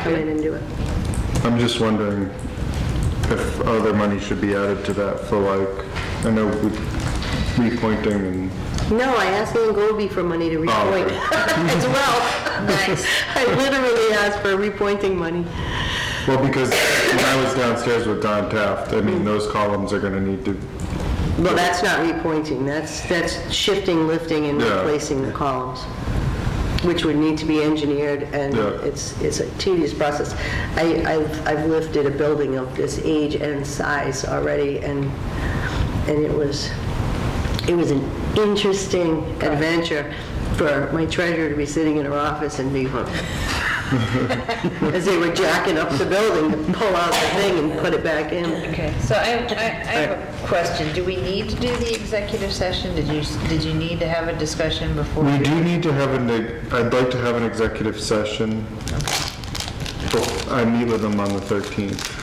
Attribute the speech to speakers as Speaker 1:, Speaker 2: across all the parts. Speaker 1: come in and do it.
Speaker 2: I'm just wondering if other money should be added to that for like, I know with repointing and,
Speaker 1: No, I asked Ian Goldby for money to repoint as well. Nice. I literally asked for repointing money.
Speaker 2: well, because when I was downstairs with Don Taft, I mean, those columns are gonna need to,
Speaker 1: Well, that's not repointing, that's, that's shifting, lifting, and
Speaker 2: Yeah.
Speaker 1: replacing the columns, which would need to be engineered, and
Speaker 2: Yeah.
Speaker 1: it's, it's a tedious process. I, I've, I've lifted a building of this age and size already, and, and it was, it was an interesting adventure for my treasurer to be sitting in her office and be, as they were jacking up the building, to pull out the thing and put it back in.
Speaker 3: Okay, so I, I I have a question. Do we need to do the executive session? Did you, did you need to have a discussion before?
Speaker 2: we
Speaker 3: you-
Speaker 2: do need to have an, e- I'd like to have an executive session. Well, I meet with them on the 13th.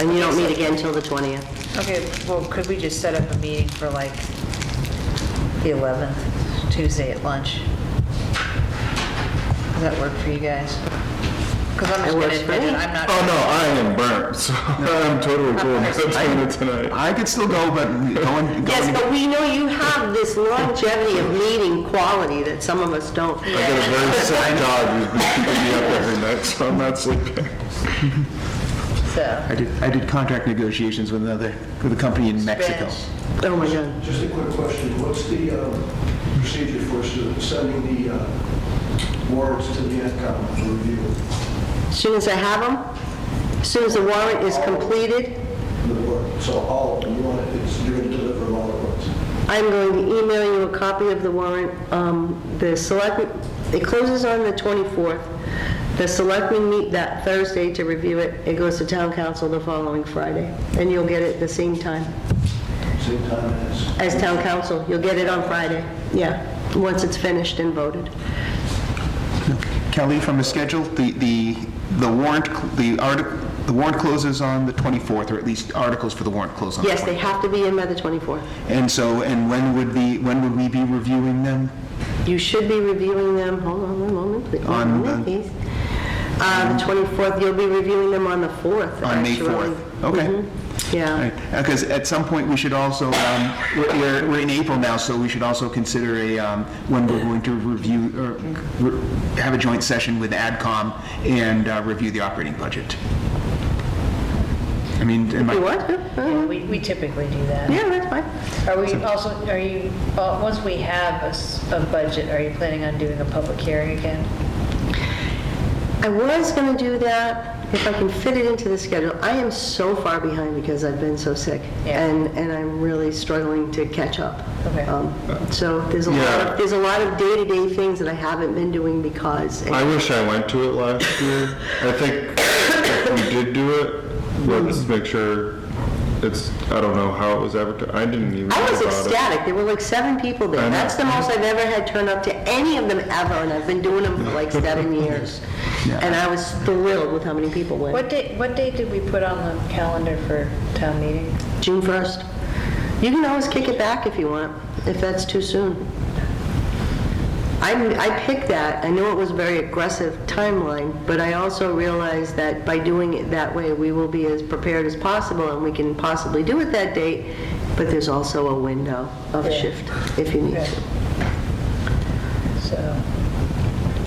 Speaker 1: And you don't meet again till the 20th.
Speaker 3: Okay, well, could we just set up a meeting for like the 11th, Tuesday at lunch? Does that work for you guys? Because I'm
Speaker 1: It
Speaker 3: just going
Speaker 1: works
Speaker 3: to
Speaker 1: for
Speaker 3: admit it,
Speaker 1: me.
Speaker 3: I'm not,
Speaker 2: Oh, no, I am burnt, so I'm totally cool with doing it tonight.
Speaker 4: I could still go, but going,
Speaker 1: Yes,
Speaker 4: going,
Speaker 1: but we know you have this longevity of meeting quality that some of us don't.
Speaker 2: I got a very sick dog who's been keeping me up every night, so I'm not sleeping.
Speaker 1: Oh.
Speaker 3: so.
Speaker 4: I did, I did contract negotiations with another, with a company in Mexico.
Speaker 3: Spanish.
Speaker 1: Oh, my God.
Speaker 5: Just a quick question, what's the um, procedure for s- sending the uh, warrants to the AdCom for review?
Speaker 1: As soon as I have them, as soon as the warrant is completed,
Speaker 5: The work- So all of them, you want, it's, you're going to deliver them all at once?
Speaker 1: I'm going to email you a copy of the warrant. Um, The select, it closes on the 24th. The selectmen meet that Thursday to review it. It goes to town council the following Friday, and you'll get it the same time.
Speaker 5: Same time as,
Speaker 1: as town council. You'll get it on Friday, yeah, once it's finished and voted.
Speaker 4: Kelly, from a schedule, the, the, the warrant, the article, the warrant closes on the 24th, or at least articles for the warrant close on the 24th.
Speaker 1: Yes, they have to be in by the 24th.
Speaker 4: And so, and when would the, when would we be reviewing them?
Speaker 1: You should be reviewing them, hold on one moment, please.
Speaker 4: On the-
Speaker 1: One moment,
Speaker 4: Hmm.
Speaker 1: please. Uh, The 24th, you'll be reviewing them on the 4th,
Speaker 4: On May
Speaker 1: actually.
Speaker 4: 4th. Okay.
Speaker 1: Mhm, Yeah.
Speaker 4: Because uh, at some point, we should also, um, we're- we're, we're in April now, so we should also consider a, um, when we're going to review, or re- have a joint session with AdCom and uh, review the operating budget. I mean, am I?
Speaker 1: You what?
Speaker 3: Yeah,
Speaker 1: Uh,
Speaker 3: We we typically do that.
Speaker 1: Yeah, that's fine.
Speaker 3: Are we also, are you, uh, once we have a s- a budget, are you planning on doing a public hearing again?
Speaker 1: I was going to do that if I can fit it into the schedule. I am so far behind because I've been so sick.
Speaker 3: Yeah.
Speaker 1: And, and I'm really struggling to catch up.
Speaker 3: Okay.
Speaker 1: Um, So there's a lot,
Speaker 2: Yeah.
Speaker 1: of there's a lot of day-to-day things that I haven't been doing because,
Speaker 2: I wish I went to it last year. I think if we did do it, let's make sure it's, I don't know how it was advertised. I didn't even know
Speaker 1: I was
Speaker 2: about it.
Speaker 1: ecstatic. There were like seven people
Speaker 2: I
Speaker 1: there.
Speaker 2: know.
Speaker 1: That's the most I've ever had turn up to any of them ever, and I've been doing them for like seven years. And I was thrilled with how many people went.
Speaker 3: What date, what date did we put on the calendar for town meeting?
Speaker 1: June 1st. You can always kick it back if you want, if that's too soon. I, I picked that, I know it was a very aggressive timeline, but I also realized that by doing it that way, we will be as prepared as possible, and we can possibly do it that date, but there's also a window of
Speaker 3: Yeah.
Speaker 1: shift if you need
Speaker 3: Yeah.
Speaker 1: to.
Speaker 3: So,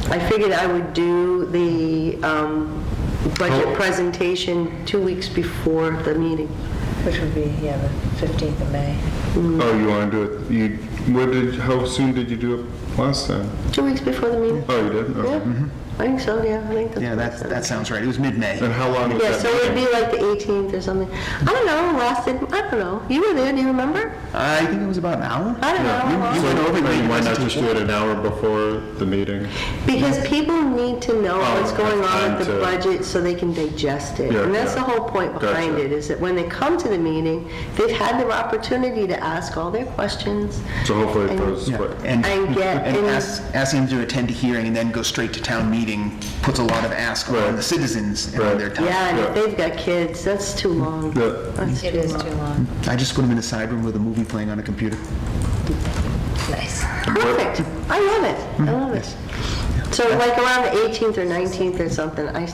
Speaker 1: I figured I would do the um, budget
Speaker 2: Oh.
Speaker 1: presentation two weeks before the meeting.
Speaker 3: which would be, yeah, the 15th of May.
Speaker 2: Oh, you want to do it, you, what did, how soon did you do it last time?
Speaker 1: Two weeks before the meeting?
Speaker 2: Oh, you did?
Speaker 1: Yeah,
Speaker 2: Okay.
Speaker 1: I think so, yeah, I think that's.
Speaker 4: Yeah,
Speaker 1: what
Speaker 4: that,
Speaker 1: I said.
Speaker 4: that sounds right. It was mid-May.
Speaker 2: And how long was
Speaker 1: Yeah, so it'd
Speaker 2: that?
Speaker 1: be like the 18th or something. I don't know, lasted, I don't know, you were there, do you remember?
Speaker 4: Uh, I think it was about an hour.
Speaker 1: I don't know. how long.
Speaker 4: you went over
Speaker 2: meeting?
Speaker 4: your
Speaker 2: So, why not
Speaker 4: presentation.
Speaker 2: just do it an hour before the meeting?
Speaker 1: Because people need to know
Speaker 2: Oh,
Speaker 1: what's going on with the
Speaker 2: time to-
Speaker 1: budget so they can digest it.
Speaker 2: Yeah,
Speaker 1: And that's the
Speaker 2: yeah.
Speaker 1: whole point behind
Speaker 2: Gotcha.
Speaker 1: it, is that when they come to the meeting, they've had their opportunity to ask all their questions.
Speaker 2: So hopefully it
Speaker 1: And-
Speaker 2: goes
Speaker 4: Yeah,
Speaker 2: quick.
Speaker 4: And,
Speaker 1: And get
Speaker 4: and
Speaker 1: in-
Speaker 4: ask- asking them to attend a hearing and then go straight to town meeting puts a lot of ask on
Speaker 2: Right.
Speaker 4: the citizens and
Speaker 2: Right.
Speaker 4: on their time.
Speaker 1: Yeah, and if
Speaker 2: Yeah.
Speaker 1: they've got kids, that's too long.
Speaker 2: Yeah.
Speaker 1: That's
Speaker 3: It
Speaker 1: too
Speaker 3: is
Speaker 1: long.
Speaker 3: too long.
Speaker 4: I just put them in a side room with a movie playing on a computer.
Speaker 3: Nice.
Speaker 1: Perfect. I love it. I love it. So like around the 18th or 19th or something, I